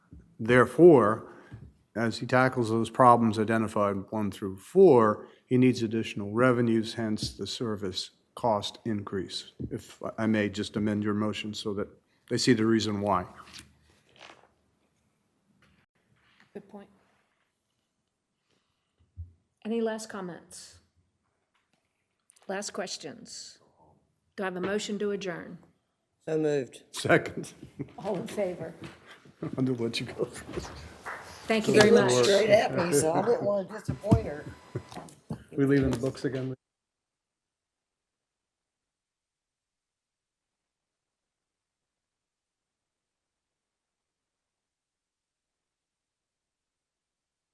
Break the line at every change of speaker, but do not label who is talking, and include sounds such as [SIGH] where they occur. Therefore, as he tackles those problems identified one through four, he needs additional revenues, hence the service cost increase. If I may just amend your motion so that they see the reason why.
Good point. Any last comments? Last questions? Do I have a motion to adjourn?
So moved.
Second,
All in
[LAUGHS]
favor?
I'm gonna let you go first.
Thank you very much.
Straight at me, so I didn't want to disappoint her.
We leaving the books again?